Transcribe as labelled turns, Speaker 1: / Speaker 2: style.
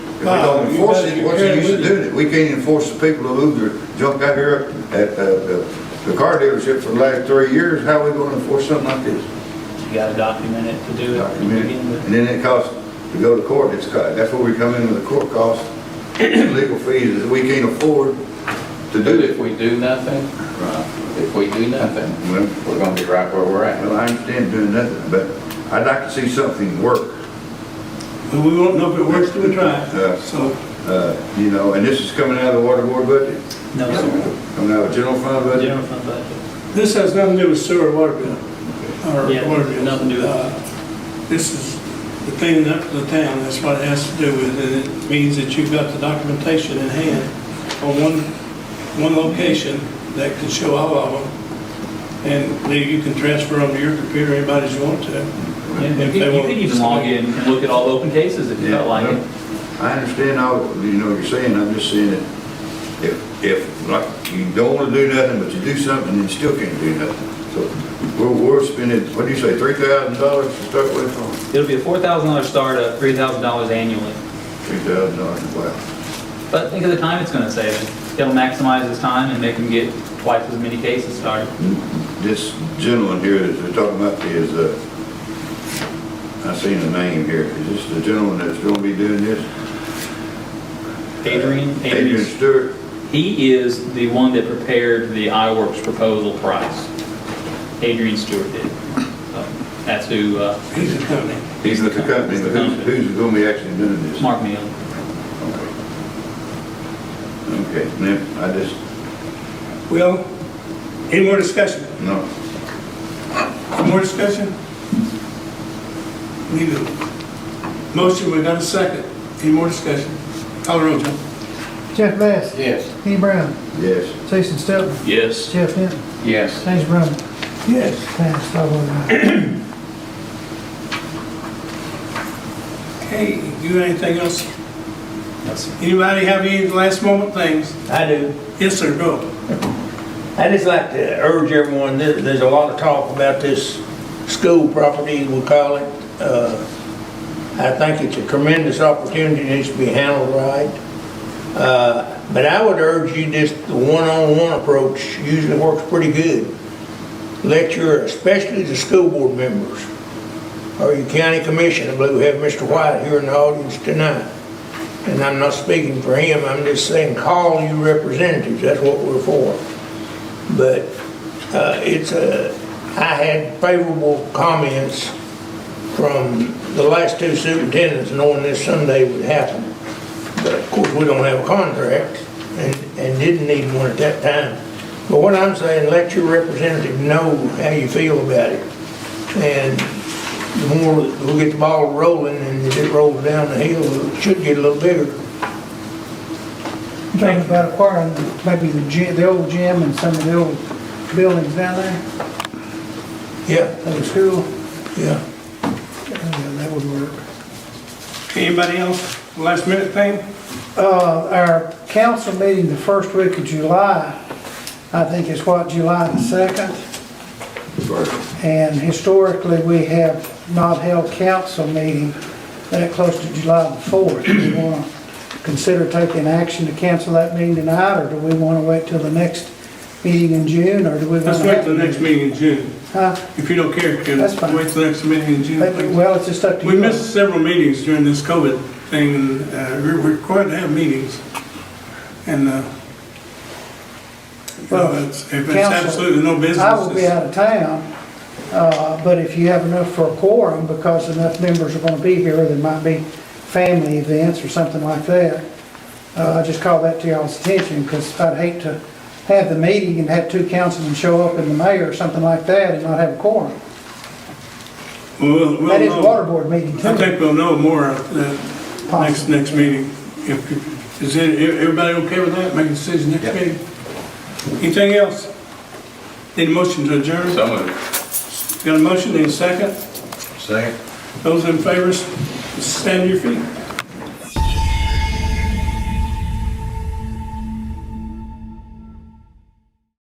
Speaker 1: If we don't enforce it, what's the use of doing it? We can't enforce the people who moved their junk out here at uh, the the car dealership for the last three years. How are we gonna enforce something like this?
Speaker 2: You gotta document it to do it. to begin with.
Speaker 1: And then it costs, to go to court, it's, co- that's where we come in with the court costs, legal fees that we can't afford to do
Speaker 3: Dude,
Speaker 1: it.
Speaker 3: if we do nothing,
Speaker 1: Well,
Speaker 3: if we do nothing, we're gonna be right where we're at.
Speaker 1: well, I understand doing nothing, but I'd like to see something work.
Speaker 4: But we won't know if it works till we try.
Speaker 1: Yeah.
Speaker 4: So,
Speaker 1: Uh, You know, and this is coming out of the water board budget,
Speaker 2: No, sir.
Speaker 1: coming out of general fund budget.
Speaker 2: General fund budget.
Speaker 4: this has nothing to do with sewer or water bill. or
Speaker 2: Yeah,
Speaker 4: water bill.
Speaker 2: nothing to do with it.
Speaker 4: Uh, This is the cleaning up of the town, that's what it has to do with, and it means that you've got the documentation in hand on one, one location that can show all of them, and then you can transfer them to your computer, anybody's you want to.
Speaker 2: And
Speaker 4: If
Speaker 2: You
Speaker 4: they
Speaker 2: could you
Speaker 4: want-
Speaker 2: could even log in and look at all open cases if you
Speaker 1: Yeah,
Speaker 2: felt like it.
Speaker 1: I understand all, you know, what you're saying, I'm just saying that if, if, like, you don't wanna do nothing, but you do something, and you still can't do nothing. So, we're, we're spending, what do you say, three thousand dollars to start with on?
Speaker 2: It'll be a four thousand dollar startup, three thousand dollars annually.
Speaker 1: Three thousand dollars, wow.
Speaker 2: But think of the time it's gonna save. It'll maximize his time and make him get twice as many cases started.
Speaker 1: This gentleman here that they're talking about is, uh, I seen the name here, is this the gentleman that's gonna be doing this?
Speaker 2: Adrian,
Speaker 1: Adrian
Speaker 2: Adrian,
Speaker 1: Stewart?
Speaker 2: he is the one that prepared the iWorks proposal price. Adrian Stewart did. So That's who, uh,
Speaker 4: He's a company.
Speaker 1: He's with the company, but who's, who's gonna be actually doing this?
Speaker 2: Mark Neal.
Speaker 1: Okay, now, I just,
Speaker 4: Well, any more discussion?
Speaker 1: no,
Speaker 4: More discussion? Need a motion, we got a second. Any more discussion? Call the roll, John.
Speaker 5: Jeff Bass.
Speaker 3: Yes.
Speaker 5: Kenny Brown.
Speaker 1: yes.
Speaker 5: Jason Stelton.
Speaker 2: Yes.
Speaker 5: Jeff Hinton.
Speaker 3: Yes.
Speaker 5: James Brown.
Speaker 4: Yes.
Speaker 5: Pass, I vote aye.
Speaker 4: Okay, you got anything else? Anybody have any last moment things?
Speaker 6: I do.
Speaker 4: Yes, sir, go.
Speaker 6: I just like to urge everyone, there- there's a lot of talk about this school property, we call it. Uh, I think it's a tremendous opportunity, needs to be handled right. Uh, But I would urge you, just the one-on-one approach usually works pretty good. Let your, especially the school board members, or your county commission, I believe we have Mr. White here in the audience tonight. And I'm not speaking for him, I'm just saying, call your representatives, that's what we're for but uh, it's a, I had favorable comments from the last two superintendents knowing this someday would happen. But of course, we don't have a contract and, and didn't need one at that time. But what I'm saying, let your representative know how you feel about it. And the more that we get the ball rolling and as it rolls down the hill, it should get a little bigger.
Speaker 5: You Talking about acquiring maybe the gym, the old gym and some of the old buildings down there
Speaker 6: Yeah,
Speaker 5: at the school.
Speaker 6: yeah.
Speaker 5: Yeah, That would work.
Speaker 4: Anybody else? Last minute thing?
Speaker 5: Uh, Our council meeting the first week of July, I think is what, July the 2nd? And historically, we have not held council meeting that close to July the 4th. Do we want to consider taking action to cancel that meeting tonight, or do we want to wait till the next meeting in June, or do we want to...
Speaker 4: Let's wait till the next meeting in June.
Speaker 5: Huh?
Speaker 4: If you don't care, Ken,
Speaker 5: That's fine.
Speaker 4: wait till the next meeting in June. please.
Speaker 5: Well, it's just up to you.
Speaker 4: We missed several meetings during this COVID thing, and uh, we're we're required to have meetings. And, uh, you know,
Speaker 5: Well,
Speaker 4: it's- if it's
Speaker 5: Council,
Speaker 4: absolutely no business.
Speaker 5: I will be
Speaker 4: it's-
Speaker 5: out of town, uh, but if you have enough for a quorum, because enough members are going to be here, there might be family events or something like that, uh, I just call that to y'all's attention, because I'd hate to have the meeting and have two councilmen show up and the mayor or something like that and not have a quorum.
Speaker 4: We'll- we'll
Speaker 5: That is
Speaker 4: know.
Speaker 5: water board meeting
Speaker 4: I
Speaker 5: too.
Speaker 4: think we'll know more at the next,
Speaker 5: Possibly.
Speaker 4: next meeting. If, is it- e, everybody okay with that? Make a decision next meeting? Anything else? Need a motion to adjourn?
Speaker 3: So moved.
Speaker 4: Got a motion, need a second?
Speaker 1: Second.
Speaker 4: Those in favor, stand to your feet.